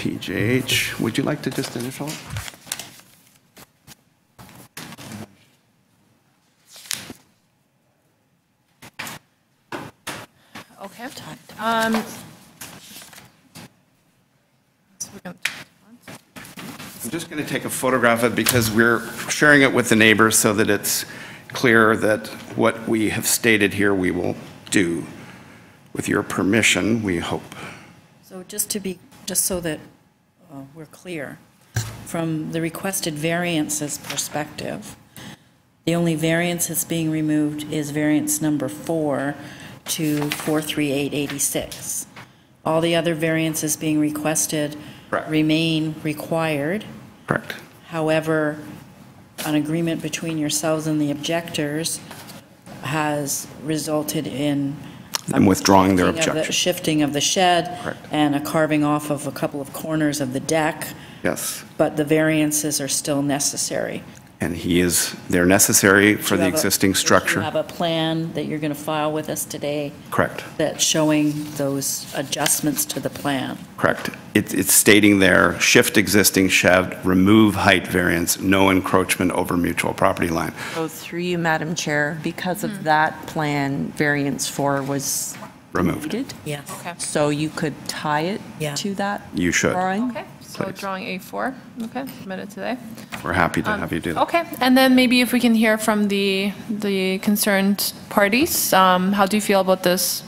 PJH. Would you like to just initial it? Okay, I've talked. Um, so we're gonna- I'm just going to take a photograph of it because we're sharing it with the neighbors so that it's clear that what we have stated here, we will do. With your permission, we hope. So just to be, just so that uh, we're clear, from the requested variances perspective, the only variance that's being removed is variance number four to 43886. All the other variances being requested Correct. remain required. Correct. However, an agreement between yourselves and the objectors has resulted in I'm withdrawing their shifting of the- objection. Shifting of the shed. Correct. And a carving off of a couple of corners of the deck, Yes, but the variances are still necessary. and he is, they're necessary for You the have a- existing You structure. have a plan that you're going to file with us today Correct, that's showing those adjustments to the plan. correct. It- It's stating there, shift existing shed, remove height variance, no encroachment over mutual property line. Go through you, Madam Chair, because of that plan, variance four was Removed. needed. Yes. Okay, So you could tie it Yeah. to that. You should. Drawing. okay, so Please. drawing A4, okay, submitted today. We're happy Um, to have you do that. Okay, and then maybe if we can hear from the, the concerned parties, um, how do you feel about this,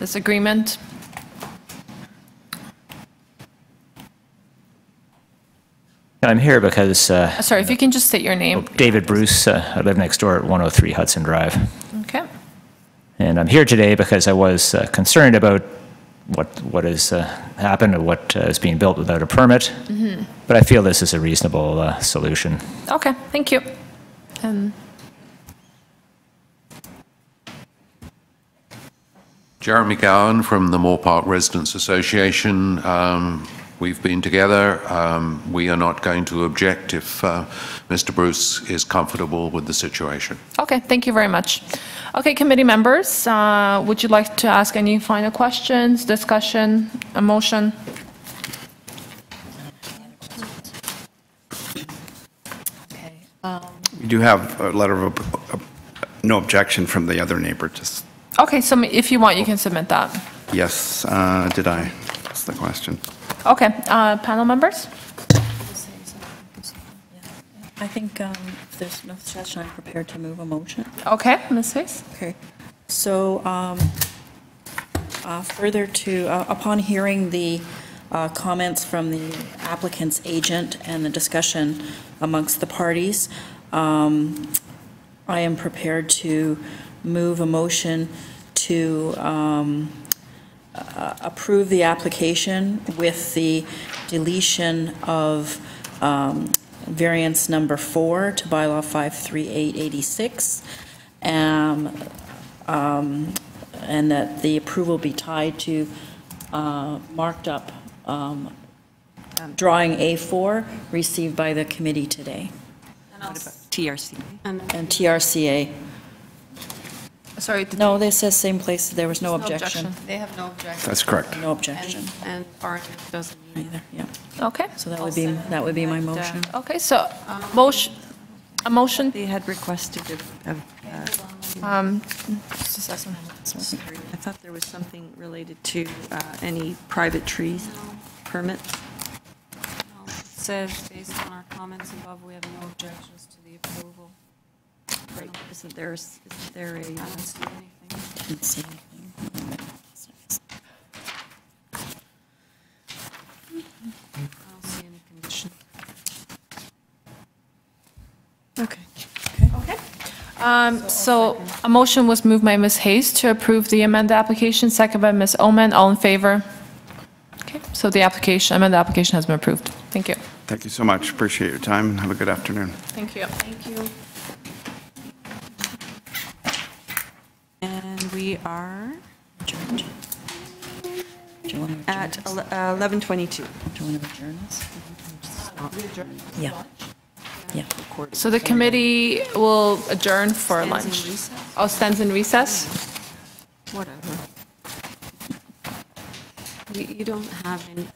this agreement? I'm here because uh, Uh, Sorry, if you can just state your name, David Bruce, uh, I live next door at 103 Hudson Drive. okay? And I'm here today because I was uh, concerned about what, what has uh, happened and what uh, is being built without a permit. But I feel this is a reasonable uh, solution. Okay, thank you. And Jeremy Gowan from the Moore Park Residents Association. Um, we've been together. Um, we are not going to object if uh, Mr. Bruce is comfortable with the situation. Okay, thank you very much. Okay, committee members, uh, would you like to ask any final questions, discussion, a motion? We do have a letter of, ob- ob- no objection from the other neighbor, just, Okay, so if you want, you can submit that. yes, uh, did I? That's the question. Okay, uh, panel members? I think um, if there's no discussion, I'm prepared to move a motion. Okay, Ms. Hayes? Okay, so um, uh, further to, uh, upon hearing the uh, comments from the applicant's agent and the discussion amongst the parties, um, I am prepared to move a motion to um, uh, approve the application with the deletion of um, variance number four to bylaw 53886, um, um, and that the approval be tied to uh, marked up um, drawing A4 received by the committee today, TRC. and TRCA. Sorry. did- No, this says same place, there was no no objection. They have no objection. That's correct. No objection And RNF doesn't either. either, yeah. Okay, So that would be, Also, that would be my and, uh, motion. okay, so, motion, a motion, They had requested uh, a, a- a- I thought there was something related to uh, any private trees permit. Says, based on our comments above, we have no objections to the approval. Isn't there, is there a? I uh, don't see anything. Didn't see anything. I don't see any condition. Okay. okay. Um, So a motion was moved by Ms. Hayes to approve the amended application, second by Ms. Omen, all in favor? Okay, so the application, amended application has been approved. Thank you. Thank you so much. Appreciate your time. and Have a good afternoon. Thank you. Thank you. And we are Adjourned. Do you want to adjourn? at ele- uh, 11:22. this? Do you want to adjourn this? Yeah. Yeah. So the committee will adjourn for lunch. Oh, stands in recess? Whatever. You, you don't have any,